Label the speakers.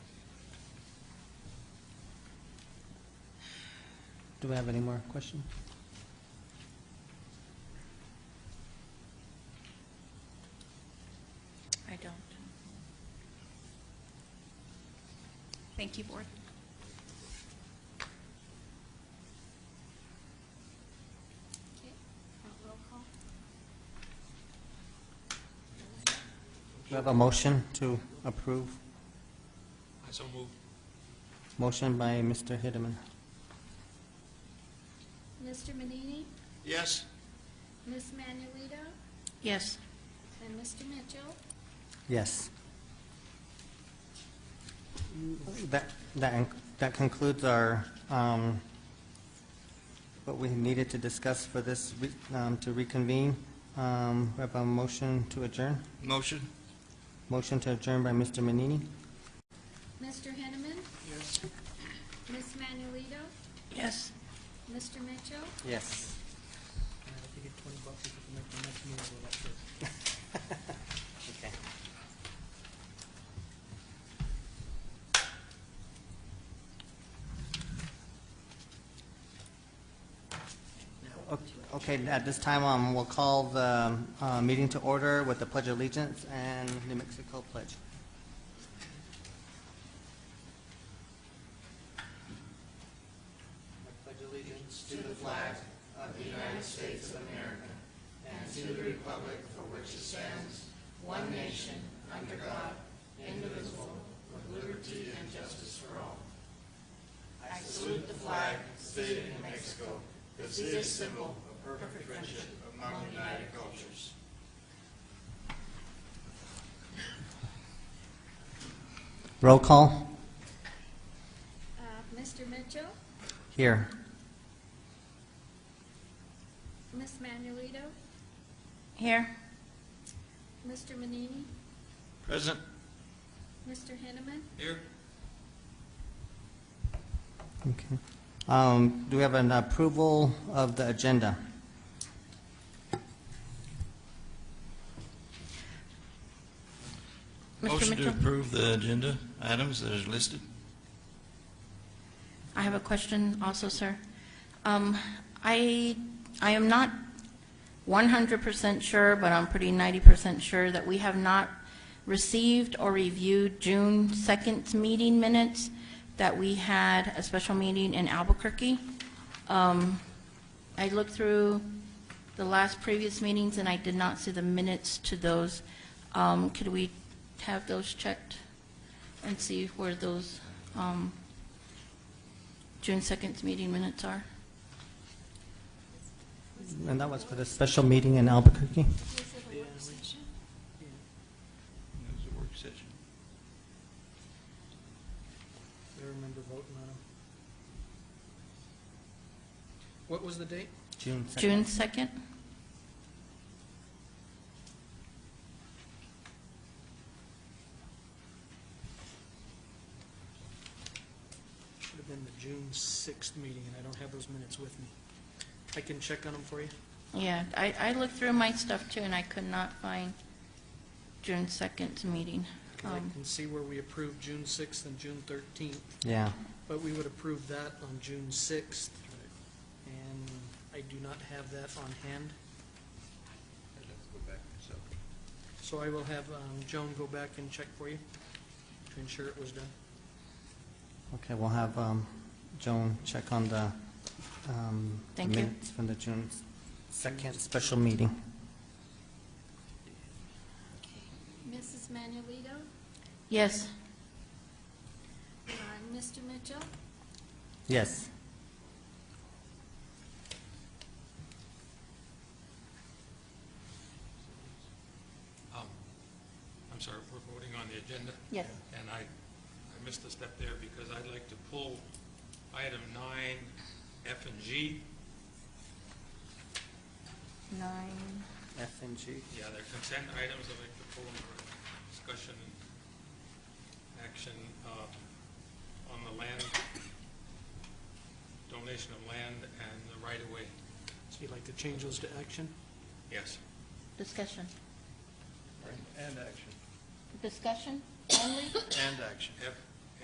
Speaker 1: Do we have any more questions?
Speaker 2: I don't. Thank you, Board. Okay, roll call.
Speaker 1: Do we have a motion to approve?
Speaker 3: I so move.
Speaker 1: Motion by Mr. Hideman.
Speaker 4: Mr. Manini,
Speaker 3: Yes.
Speaker 4: Ms. Manuelito,
Speaker 2: Yes.
Speaker 4: and Mr. Mitchell.
Speaker 1: Yes. That, that en- that concludes our, um, what we needed to discuss for this, re- um, to reconvene. Um, We have a motion to adjourn.
Speaker 3: Motion?
Speaker 1: Motion to adjourn by Mr. Manini.
Speaker 4: Mr. Henneman,
Speaker 3: Yes.
Speaker 4: Ms. Manuelito,
Speaker 2: Yes.
Speaker 4: Mr. Mitchell.
Speaker 1: Yes. Okay. O- Okay, at this time, um, we'll call the uh, meeting to order with the Pledge of Allegiance and New Mexico Pledge. Roll call,
Speaker 4: Uh, Mr. Mitchell,
Speaker 1: here.
Speaker 4: Ms. Manuelito,
Speaker 2: Here.
Speaker 4: Mr. Manini,
Speaker 3: Present?
Speaker 4: Mr. Henneman,
Speaker 3: Here.
Speaker 1: Okay. Um, Do we have an approval of the agenda?
Speaker 2: Mr.
Speaker 3: Motion to
Speaker 2: Mitchell,
Speaker 3: approve the agenda items that are listed.
Speaker 2: I have a question also, sir. Um, I, I am not 100% sure, but I'm pretty 90% sure that we have not received or reviewed June 2nd's meeting minutes, that we had a special meeting in Albuquerque. Um, I looked through the last previous meetings, and I did not see the minutes to those. Um, Could we have those checked and see where those um, June 2nd's meeting minutes are?
Speaker 1: And that was for the special meeting in Albuquerque?
Speaker 3: It was a work session.
Speaker 5: I remember voting on them. What was the date?
Speaker 1: June 2nd.
Speaker 2: June 2nd?
Speaker 5: Should have been the June sixth meeting, and I don't have those minutes with me. I can check on them for you.
Speaker 2: Yeah, I, I looked through my stuff too, and I could not find June 2nd's meeting.
Speaker 5: 'cause I
Speaker 2: Um,
Speaker 5: can see where we approved June sixth and June thirteenth,
Speaker 1: Yeah.
Speaker 5: but we would approve that on June sixth. And I do not have that on hand,
Speaker 3: I'd have to go back myself.
Speaker 5: so I will have um, Joan go back and check for you to ensure it was done.
Speaker 1: Okay, we'll have um, Joan check on the um, the
Speaker 2: Thank you.
Speaker 1: minutes from the June 2nd special meeting.
Speaker 4: Mrs. Manuelito,
Speaker 2: Yes,
Speaker 4: uh, Mr. Mitchell,
Speaker 1: Yes.
Speaker 6: Um, I'm sorry, we're voting on the agenda?
Speaker 2: Yes.
Speaker 6: And I, I missed a step there because I'd like to pull item nine, F and G.
Speaker 2: 9,
Speaker 1: F and G.
Speaker 6: Yeah, they're consent items, I'd like to pull them for discussion and action uh, on the land, donation of land and the right-of-way.
Speaker 5: So you'd like to change those to action?
Speaker 6: Yes.
Speaker 2: discussion.
Speaker 3: And action.
Speaker 2: Discussion only?
Speaker 3: And action.
Speaker 6: F,